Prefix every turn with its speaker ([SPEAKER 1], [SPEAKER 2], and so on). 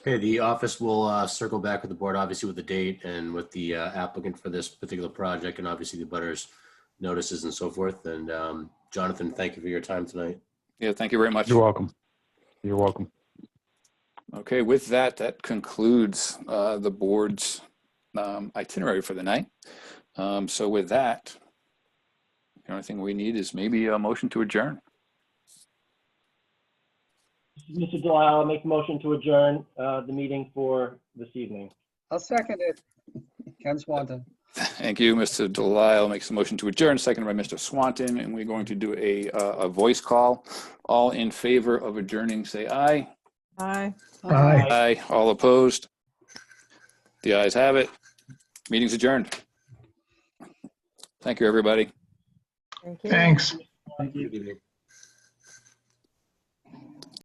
[SPEAKER 1] Okay, the office will uh, circle back with the board, obviously with the date and with the uh, applicant for this particular project and obviously the butters notices and so forth. And um, Jonathan, thank you for your time tonight.
[SPEAKER 2] Yeah, thank you very much.
[SPEAKER 3] You're welcome. You're welcome.
[SPEAKER 2] Okay, with that, that concludes uh, the board's um, itinerary for the night. Um, So with that, the only thing we need is maybe a motion to adjourn.
[SPEAKER 4] Mr. Delisle, I'll make a motion to adjourn uh, the meeting for this evening.
[SPEAKER 5] I'll second it. Ken Swanton.
[SPEAKER 2] Thank you, Mr. Delisle makes a motion to adjourn, seconded by Mr. Swanton, and we're going to do a, uh, a voice call. All in favor of adjourning, say aye.
[SPEAKER 6] Aye.
[SPEAKER 4] Aye.
[SPEAKER 2] Aye. All opposed? The ayes have it. Meeting's adjourned. Thank you, everybody.
[SPEAKER 6] Thank you.
[SPEAKER 7] Thanks.
[SPEAKER 1] Good evening.